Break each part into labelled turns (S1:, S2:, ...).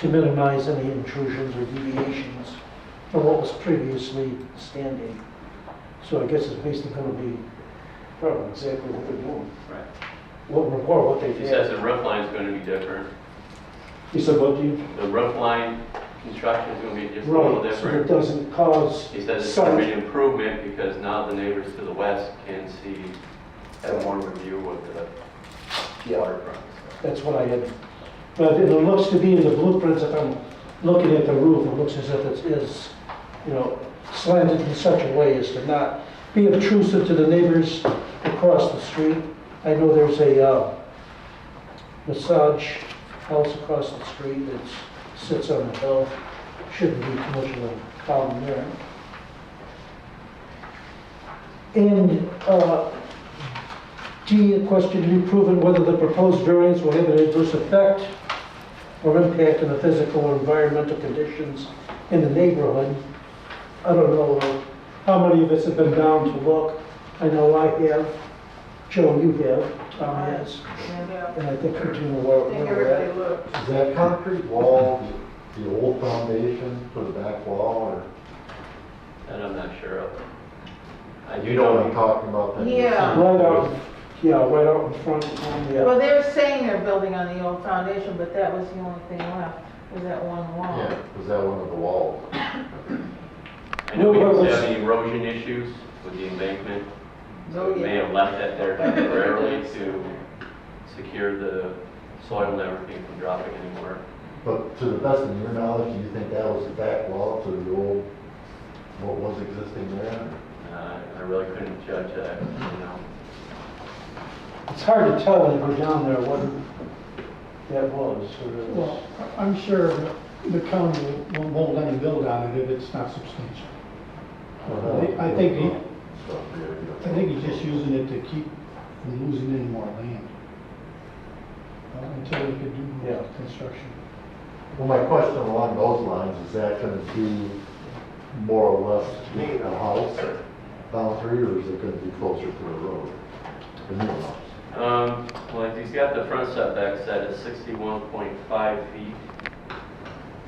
S1: to minimize any intrusions or deviations from what was previously standing. So I guess it's basically gonna be probably exactly what they're doing,
S2: Right.
S1: what, or what they
S2: It says
S1: did.
S2: the roof line's gonna be different.
S1: He said, what do you,
S2: The roof line construction's gonna be just a
S1: right,
S2: little
S1: so it
S2: different.
S1: doesn't cause.
S2: He says it's
S1: sun-
S2: gonna be an improvement because now the neighbors to the west can see, have more of a view of the waterfront.
S1: That's what I had, but it looks to be in the blueprints, if I'm looking at the roof, it looks as if it is, you know, slanted in such a way as to not be obtrusive to the neighbors across the street. I know there's a uh, massage house across the street that sits on a hill, shouldn't be too much of a problem there. And uh, D, a question to be proven whether the proposed variance will have an adverse effect or impact on the physical or environmental conditions in the neighborhood. I don't know uh, how many of us have been down to look. I know I have, Joe, you have, Tom has,
S3: Yeah,
S1: and I think you do
S3: I
S1: well.
S3: think everybody looked.
S4: Is that concrete wall the old foundation for the back wall,
S2: And I'm not sure of. I
S4: or
S2: do
S4: you know what I'm
S2: know,
S4: talking about? that-
S3: Yeah.
S1: Right out, yeah, right out in front, um, yeah.
S3: Well, they're saying they're building on the old foundation, but that was the only thing left, was that one wall.
S4: Yeah, was that one of the walls?
S2: I know we
S1: Well,
S2: used to
S1: what's-
S2: have the erosion issues with the embankment. So
S3: Oh,
S2: we may
S3: yeah.
S2: have left that there temporarily to secure the soil and everything from dropping anywhere.
S4: But to the best of your knowledge, do you think that was the back wall to the old, what was existing there?
S2: Uh, I really couldn't judge that, you know.
S1: It's hard to tell when you go down there what that was. or-
S5: Well, I- I'm sure the county will- won't let him build on it if it's not substantial. I think he- I think he's just using it to keep from losing any more land. uh, Until he could do
S1: Yeah.
S5: more construction.
S4: Well, my question along those lines, is that gonna be more or less a house boundary, or is it gonna be closer to a road? The new house?
S2: Um, well, if he's got the front setback set at sixty-one point five feet.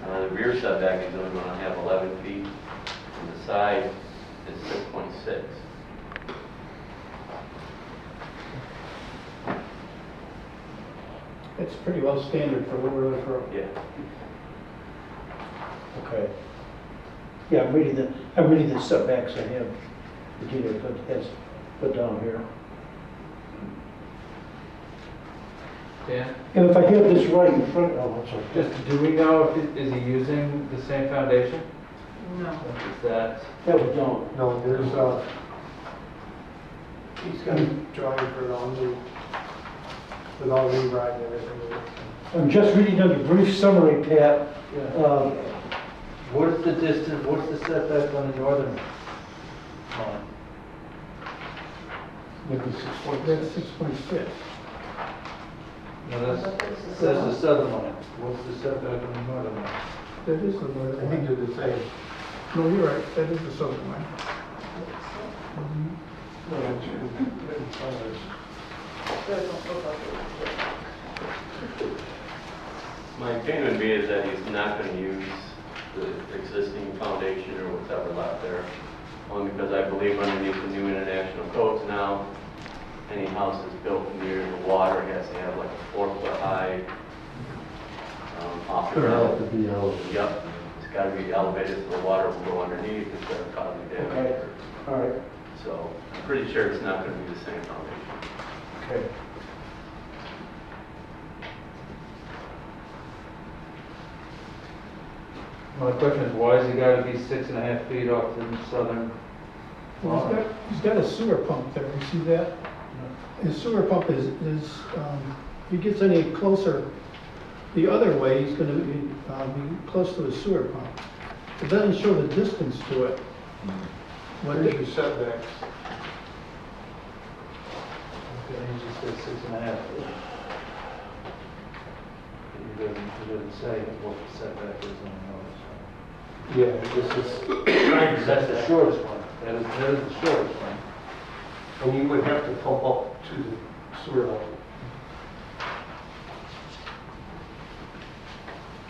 S2: Uh, the rear setback is only gonna have eleven feet, and the side is six point six.
S5: It's pretty well standard for what we're looking for.
S2: Yeah.
S1: Okay. Yeah, I'm reading the, I'm reading the setbacks I have, the dealer put, has put down here.
S6: Dan,
S1: And if I have this right in front, oh, I'm sorry.
S6: just, do we know if, he- is he using the same foundation?
S3: No.
S6: Is that,
S1: That we don't.
S7: No, there's uh, a, he's got a drawing for it all new, with all rewrite and everything.
S1: I'm just reading under brief summary, Pat. Um,
S6: what is the distance, what's the setback on the northern line?
S5: With the six point,
S7: Hmm.
S5: that's six point six.
S6: No, that's, that's the southern line. What's the setback on the northern line?
S5: That is the
S7: I
S5: northern
S7: think
S5: line.
S7: they're the same.
S5: No, you're right, that is the southern line.
S2: My opinion would be is that he's not gonna use the existing foundation or whatever left there. Only because I believe underneath the new international codes now, any house that's built near the water has to have like a four foot high, um, off the
S4: Could have
S2: ground.
S4: to be elevated.
S2: Yep, it's gotta be elevated so the water will go underneath instead of causing damage.
S1: Okay. All right,
S2: So I'm pretty sure it's not gonna be the same foundation.
S1: okay.
S6: My question is, why has he gotta be six and a half feet off the southern
S5: Well, he's got, he's got a sewer pump there, you see that? His sewer pump is, is, um, if he gets any closer the other way, he's gonna be, uh, be close to his sewer pump. It doesn't show the distance to it. What
S7: There's your
S5: it,
S7: setbacks.
S6: Okay, he just said six and a half. He doesn't, he doesn't say what the setback is on the
S7: Yeah,
S6: north side.
S7: this is,
S6: That's the shortest one. That is, that is the shortest one.
S7: and you would have to pump up to the sewer line.